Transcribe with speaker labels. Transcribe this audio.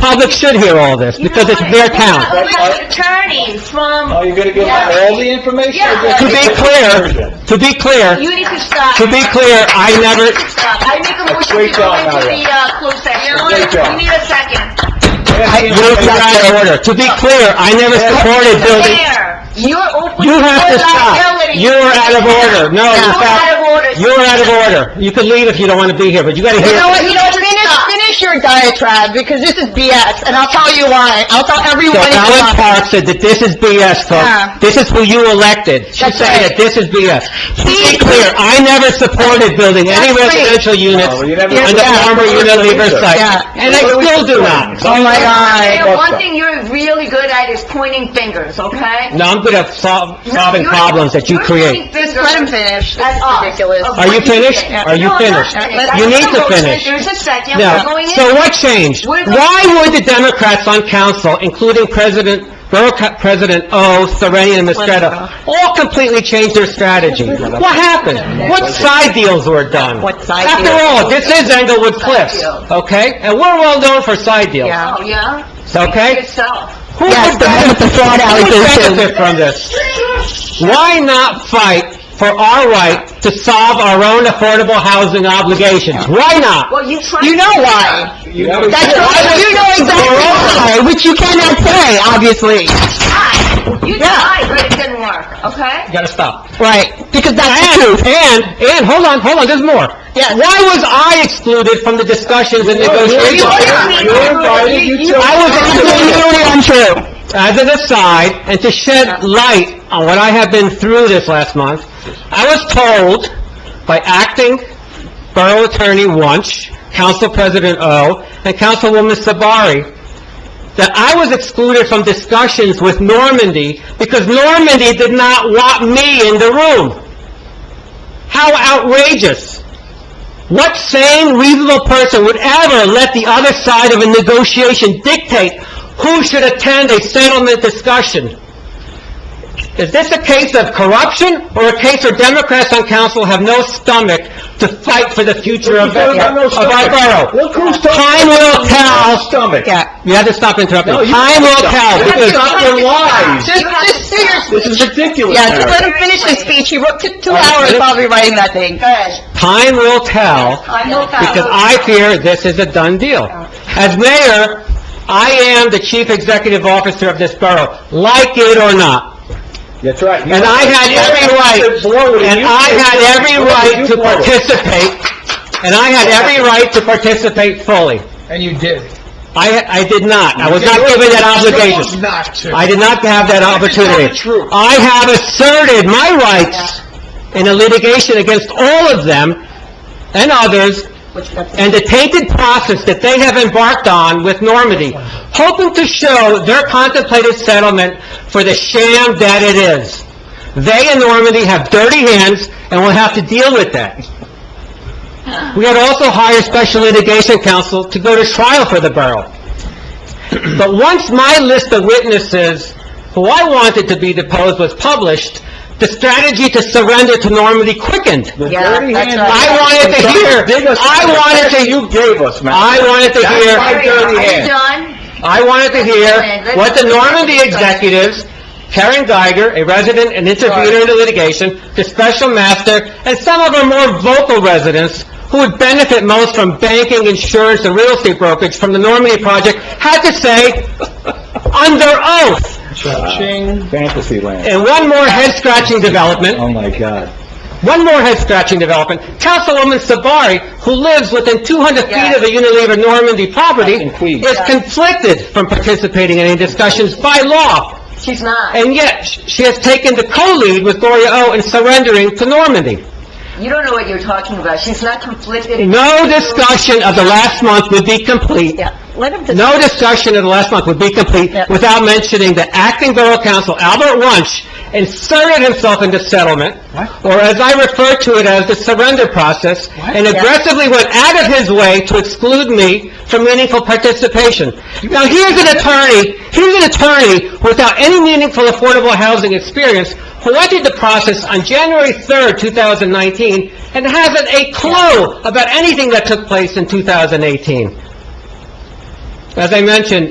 Speaker 1: public should hear all this, because it's their town.
Speaker 2: We're not returning
Speaker 3: Are
Speaker 2: from,
Speaker 3: you Oh, gonna give out all the information? or just-
Speaker 1: To be clear, to be clear,
Speaker 2: you need to stop.
Speaker 1: to be clear, I never,
Speaker 2: Stop. I make a motion to
Speaker 3: Wait,
Speaker 2: go
Speaker 3: John,
Speaker 2: into
Speaker 3: Maria.
Speaker 2: the, uh, closed session.
Speaker 3: Wait, John.
Speaker 2: We need a second.
Speaker 1: I- you don't get out of order. To be clear, I never supported building,
Speaker 2: There. You're opening
Speaker 1: you
Speaker 2: your
Speaker 1: have to stop.
Speaker 2: liability.
Speaker 1: You're out of order. No, in
Speaker 2: You're out of
Speaker 1: fact,
Speaker 2: order.
Speaker 1: you're out of order. You can leave if you don't want to be here, but you gotta
Speaker 4: You know
Speaker 1: hear.
Speaker 4: what, you know, what, finish, finish your diatribe, because this is BS, and I'll tell you why. I'll tell
Speaker 1: So
Speaker 4: everyone in the
Speaker 1: Alan
Speaker 4: office.
Speaker 1: Park said that this is BS,
Speaker 4: Yeah.
Speaker 1: folks. This is who you elected. She's
Speaker 4: That's
Speaker 1: saying that
Speaker 4: right.
Speaker 1: this is BS. To be
Speaker 4: He-
Speaker 1: clear, I never supported building any
Speaker 4: That's right.
Speaker 1: residential units
Speaker 3: No,
Speaker 1: on
Speaker 3: Oh, you
Speaker 1: the
Speaker 3: never-
Speaker 4: Yeah.
Speaker 1: former Unilever site,
Speaker 4: Yeah.
Speaker 1: and I still do not.
Speaker 4: Oh my
Speaker 2: Maria,
Speaker 4: god.
Speaker 2: one thing you're really good at is pointing fingers, okay?
Speaker 1: No, I'm good at sol- solving
Speaker 2: You're-
Speaker 1: problems that you
Speaker 2: you're
Speaker 1: create.
Speaker 2: pointing fingers
Speaker 4: Let him finish, this
Speaker 2: at
Speaker 4: is
Speaker 2: us.
Speaker 4: ridiculous.
Speaker 2: Of
Speaker 1: Are you
Speaker 2: what
Speaker 1: finished?
Speaker 2: think.
Speaker 1: Are you
Speaker 2: No, I'm not
Speaker 1: finished?
Speaker 2: finished.
Speaker 1: You
Speaker 2: I
Speaker 1: need
Speaker 2: have
Speaker 1: to
Speaker 2: a motion.
Speaker 1: finish.
Speaker 2: There's a second, we're
Speaker 1: Now,
Speaker 2: going in.
Speaker 1: so what changed?
Speaker 2: We're-
Speaker 1: Why would the Democrats on council, including President, Borough Co- President O., Serenian, and Mistretta, all completely change their strategy? What happened? What side deals were done?
Speaker 4: What side
Speaker 1: After
Speaker 4: deals?
Speaker 1: all, this is Englewood Cliffs,
Speaker 2: deals.
Speaker 1: okay? And we're well known for side deals,
Speaker 4: Yeah.
Speaker 2: Oh, yeah?
Speaker 1: okay?
Speaker 2: Yourself.
Speaker 1: Who would
Speaker 4: Yes, the one with the fraud
Speaker 1: benefit- who would
Speaker 4: allegation.
Speaker 1: benefit from this? Why not fight for our right to solve our own affordable housing obligations? Why not?
Speaker 2: Well, you tried.
Speaker 4: You know why.
Speaker 3: You never-
Speaker 4: That's right, you know exactly why, which you cannot say, obviously.
Speaker 2: tried. You
Speaker 4: Yeah.
Speaker 2: tried, but it didn't work, okay?
Speaker 1: You gotta stop.
Speaker 4: Right, because that's true.
Speaker 1: And, and, and, hold on, hold on, there's more.
Speaker 4: Yes.
Speaker 1: Why was I excluded from the discussions and
Speaker 3: You
Speaker 1: negotiations?
Speaker 3: invited- You invited, you took-
Speaker 1: I was excluded
Speaker 4: Absolutely untrue.
Speaker 1: as an aside, and to shed light on what I have been through this last month, I was told by acting Borough Attorney Wunsch, Council President O., and Councilwoman Sabari, that I was excluded from discussions with Normandy because Normandy did not want me in the room. How outrageous! What sane, reasonable person would ever let the other side of a negotiation dictate who should attend a settlement discussion? Is this a case of corruption or a case where Democrats on council have no stomach to fight for the future of of
Speaker 3: You have no
Speaker 1: our
Speaker 3: stomach.
Speaker 1: borough?
Speaker 3: Look who's talking.
Speaker 1: Time will tell.
Speaker 3: Stomach.
Speaker 4: Yeah.
Speaker 1: You have to stop interrupting.
Speaker 3: No, you-
Speaker 1: Time will tell,
Speaker 3: You
Speaker 1: because
Speaker 3: Stop your lies.
Speaker 4: Just,
Speaker 2: You have
Speaker 4: just
Speaker 2: to
Speaker 4: seriously.
Speaker 3: This is ridiculous,
Speaker 4: Yeah, just let
Speaker 3: Mary.
Speaker 4: him finish his speech, he wrote, took two
Speaker 1: right,
Speaker 4: hours
Speaker 1: let him-
Speaker 4: probably writing that thing.
Speaker 2: Good.
Speaker 1: time will tell,
Speaker 2: I know that.
Speaker 1: because I fear this is a done deal. As mayor, I am the chief executive officer of this borough, like it or not.
Speaker 3: That's right.
Speaker 1: And I had every right, and I had every right to participate, and I had every right to participate fully.
Speaker 5: And you did.
Speaker 1: I, I did not. I was not given that obligation.
Speaker 5: Chose not to.
Speaker 1: I did not have that opportunity.
Speaker 5: True.
Speaker 1: I have asserted my rights in a litigation against all of them and others, and the tainted process that they have embarked on with Normandy, hoping to show their contemplated settlement for the sham that it is. They and Normandy have dirty hands, and will have to deal with that. We had also hired special litigation counsel to go to trial for the borough. But once my list of witnesses who I wanted to be deposed was published, the strategy to surrender to Normandy quickened.
Speaker 4: Yeah, that's right.
Speaker 1: I wanted to hear, I wanted to,
Speaker 3: You gave us, man.
Speaker 1: I wanted to
Speaker 3: my
Speaker 1: hear,
Speaker 3: dirty
Speaker 2: Are you
Speaker 3: hand.
Speaker 2: done?
Speaker 1: I wanted to hear what the Normandy executives, Karen Geiger, a resident and intervener in the litigation, the special master, and some of our more vocal residents who would benefit most from banking, insurance, and real estate brokerage from the Normandy project, had to say under oath.
Speaker 5: Cha-ching.
Speaker 3: Fantasy land.
Speaker 1: And one more head-scratching
Speaker 3: Oh,
Speaker 1: development,
Speaker 3: my God.
Speaker 1: one more head-scratching development. Councilwoman Sabari, who lives within 200 feet of the Unilever Normandy property,
Speaker 3: In Queens.
Speaker 1: is conflicted from participating in any discussions by law,
Speaker 2: She's not.
Speaker 1: and yet sh- she has taken the co-lead with Gloria O. in surrendering to Normandy.
Speaker 2: You don't know what you're talking about. She's not conflicted.
Speaker 1: No discussion of the last month would be complete
Speaker 4: Yeah, let him just,
Speaker 1: No discussion in the last month would be complete
Speaker 4: Yeah.
Speaker 1: without mentioning that acting Borough Council Albert Wunsch inserted himself into settlement, or as I refer to it as the surrender process, and aggressively went out of his way to exclude me from meaningful participation. Now, here's an attorney, here's an attorney without any meaningful affordable housing experience who entered the process on January 3rd, 2019, and hasn't a clue about anything that took place in 2018. as I mentioned,